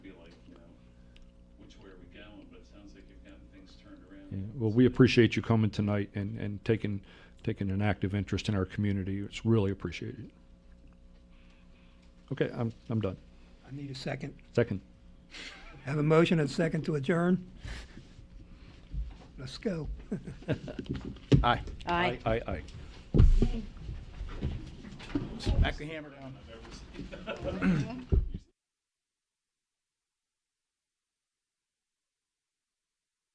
well, we appreciate you coming tonight and, and taking, taking an active interest in our community. It's really appreciated. Okay, I'm, I'm done. I need a second. Second. Have a motion and a second to adjourn? Let's go. Aye. Aye. Aye, aye. Back the hammer down.